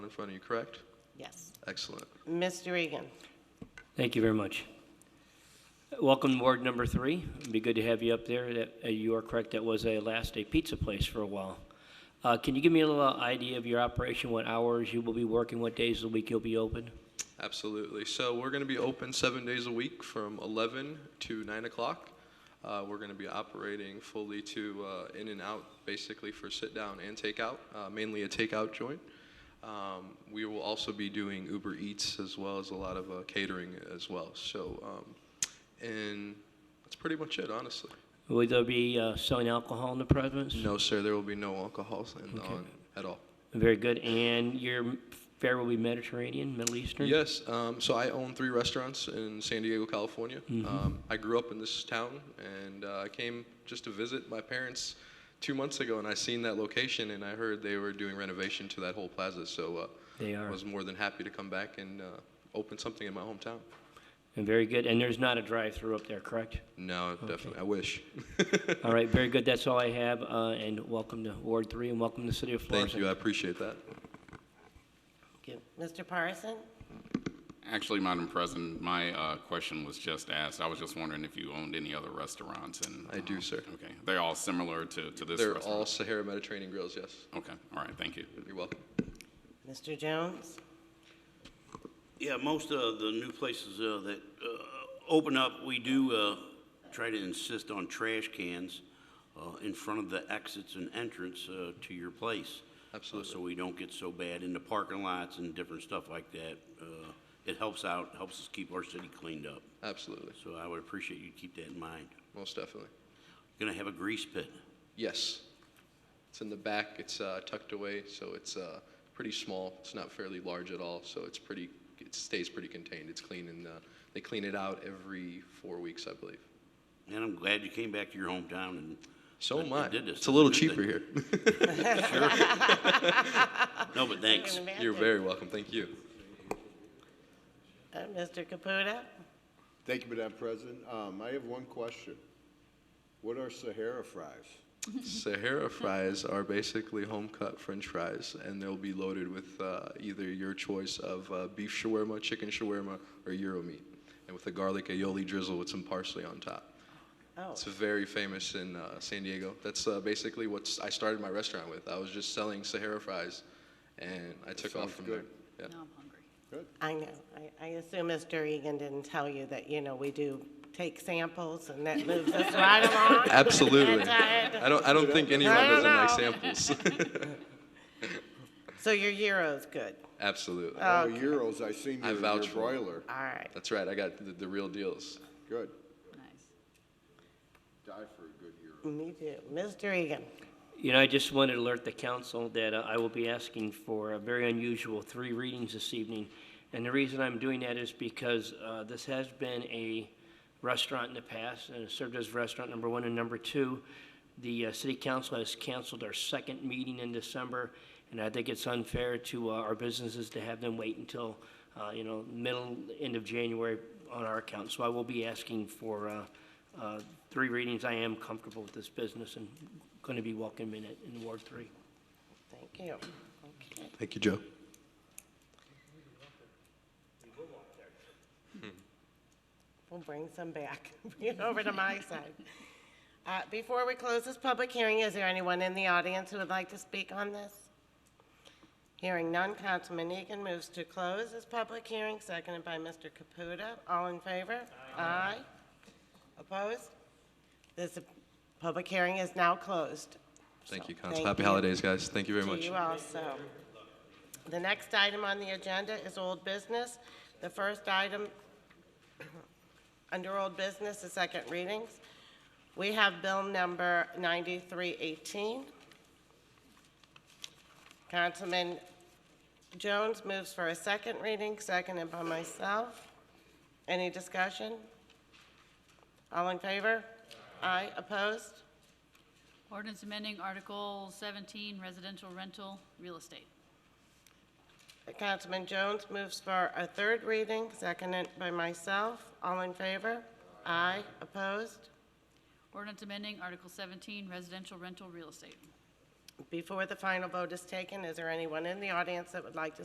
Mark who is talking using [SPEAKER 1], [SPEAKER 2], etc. [SPEAKER 1] front of you, correct?
[SPEAKER 2] Yes.
[SPEAKER 1] Excellent.
[SPEAKER 2] Mr. Egan?
[SPEAKER 3] Thank you very much. Welcome to Ward Number Three. It'd be good to have you up there. That- uh, You are correct, that was a last a pizza place for a while. Uh, Can you give me a little idea of your operation, what hours you will be working, what days of the week you'll be open?
[SPEAKER 1] Absolutely. So we're going to be open seven days a week from 11 to 9 o'clock. Uh, we're going to be operating fully to uh, in and out, basically for sit down and takeout, uh, mainly a takeout joint. Um, we will also be doing Uber Eats as well as a lot of uh, catering as well. So, um, and that's pretty much it, honestly.
[SPEAKER 3] Will there be uh, selling alcohol in the presence?
[SPEAKER 1] No, sir, there will be no alcohol in,
[SPEAKER 3] Okay.
[SPEAKER 1] on at all.
[SPEAKER 3] Very good. And your fare will be Mediterranean, Middle Eastern?
[SPEAKER 1] Yes. Um, so I own three restaurants in San Diego, California.
[SPEAKER 3] Mm-hmm.
[SPEAKER 1] Um, I grew up in this town, and uh, I came just to visit my parents two months ago, and I seen that location, and I heard they were doing renovation to that whole plaza. So uh,
[SPEAKER 3] They
[SPEAKER 1] I
[SPEAKER 3] are.
[SPEAKER 1] was more than happy to come back and uh, open something in my hometown.
[SPEAKER 3] And very good. And there's not a drive-through up there, correct?
[SPEAKER 1] No, definitely. I wish.
[SPEAKER 3] All right, very good. That's all I have. uh, And welcome to Ward Three and welcome to the city of Florissant.
[SPEAKER 1] Thank you. I appreciate that.
[SPEAKER 2] Thank you. Mr. Parson?
[SPEAKER 4] Actually, Madam President, my uh, question was just asked. I was just wondering if you owned any other restaurants and.
[SPEAKER 1] I do,
[SPEAKER 4] um,
[SPEAKER 1] sir.
[SPEAKER 4] Okay, they're all similar to, to this
[SPEAKER 1] They're all
[SPEAKER 4] restaurant?
[SPEAKER 1] Sahara Mediterranean grills. Yes.
[SPEAKER 4] Okay, all right, thank you.
[SPEAKER 1] You're welcome.
[SPEAKER 2] Mr. Jones?
[SPEAKER 5] Yeah, most of the new places uh, that uh, open up, we do uh, try to insist on trash cans uh, in front of the exits and entrance uh, to your place. Uh,
[SPEAKER 1] Absolutely.
[SPEAKER 5] So we don't get so bad in the parking lots and different stuff like that. Uh, It helps out, helps us keep our city cleaned up.
[SPEAKER 1] Absolutely.
[SPEAKER 5] So I would appreciate you keep that in mind.
[SPEAKER 1] Most definitely.
[SPEAKER 5] Gonna have a grease pit.
[SPEAKER 1] Yes. It's in the back. It's uh, tucked away, so it's uh, pretty small. It's not fairly large at all, so it's pretty. It stays pretty contained. It's clean, and uh, they clean it out every four weeks, I believe.
[SPEAKER 5] And I'm glad you came back to your hometown and.
[SPEAKER 1] So
[SPEAKER 5] and-
[SPEAKER 1] am
[SPEAKER 5] and
[SPEAKER 1] I.
[SPEAKER 5] did this.
[SPEAKER 1] It's a little
[SPEAKER 5] Good
[SPEAKER 1] cheaper
[SPEAKER 5] thing.
[SPEAKER 1] here.
[SPEAKER 5] No, but thanks.
[SPEAKER 1] You're very welcome. Thank you.
[SPEAKER 2] Uh, Mr. Caputa?
[SPEAKER 6] Thank you, Madam President. Um, I have one question. What are Sahara fries?
[SPEAKER 1] Sahara fries are basically home cut French fries, and they'll be loaded with uh, either your choice of uh, beef shawarma, chicken shawarma, or gyro meat, and with a garlic aioli drizzle with some parsley on top.
[SPEAKER 2] Oh,
[SPEAKER 1] It's very famous in uh, San Diego. That's uh, basically what I started my restaurant with. I was just selling Sahara fries, and I took off
[SPEAKER 6] sounds
[SPEAKER 1] from
[SPEAKER 6] good.
[SPEAKER 1] there. Yeah.
[SPEAKER 6] Good.
[SPEAKER 2] I know. I, I assume Mr. Egan didn't tell you that, you know, we do take samples and that moves us right along. uh,
[SPEAKER 1] Absolutely.
[SPEAKER 2] That's right.
[SPEAKER 1] I don't. I don't think anyone
[SPEAKER 2] No, no,
[SPEAKER 1] doesn't like
[SPEAKER 2] no.
[SPEAKER 1] samples.
[SPEAKER 2] So your gyro's good.
[SPEAKER 1] Absolutely.
[SPEAKER 6] Oh, Euros, I seen
[SPEAKER 1] I
[SPEAKER 6] your your
[SPEAKER 1] vouch for it.
[SPEAKER 6] broiler.
[SPEAKER 2] All right.
[SPEAKER 1] That's right. I got the, the real deals.
[SPEAKER 6] Good.
[SPEAKER 7] Nice.
[SPEAKER 6] Die for a good Euro.
[SPEAKER 2] Me too. Mr. Egan?
[SPEAKER 3] You know, I just wanted to alert the council that uh, I will be asking for a very unusual three readings this evening. And the reason I'm doing that is because uh, this has been a restaurant in the past, and it served as restaurant number one and number two. The uh, city council has canceled our second meeting in December, and I think it's unfair to uh, our businesses to have them wait until, uh, you know, middle, end of January on our account. So I will be asking for uh, uh, three readings. I am comfortable with this business and going to be welcoming it in Ward Three.
[SPEAKER 2] Thank you. Okay.
[SPEAKER 1] Thank you, Joe.
[SPEAKER 2] We'll bring some back, bring it over to my side. Uh, Before we close this public hearing, is there anyone in the audience who would like to speak on this? Hearing none, Councilman Egan moves to close this public hearing, seconded by Mr. Caputa. All in favor? Aye. Opposed? This public hearing is now closed.
[SPEAKER 1] Thank
[SPEAKER 2] So,
[SPEAKER 1] you, Cons.
[SPEAKER 2] thank
[SPEAKER 1] Happy
[SPEAKER 2] you
[SPEAKER 1] holidays, guys. Thank you very
[SPEAKER 2] to
[SPEAKER 1] much.
[SPEAKER 2] you also. The next item on the agenda is old business. The first item under old business is second readings. We have bill number 9318. Councilman Jones moves for a second reading, seconded by myself. Any discussion? All in favor? Aye. Opposed?
[SPEAKER 7] Ordinance amending Article 17 residential rental real estate.
[SPEAKER 2] Councilman Jones moves for a third reading, seconded by myself. All in favor? Aye. Opposed?
[SPEAKER 7] Ordinance amending Article 17 residential rental real estate.
[SPEAKER 2] Before the final vote is taken, is there anyone in the audience that would like to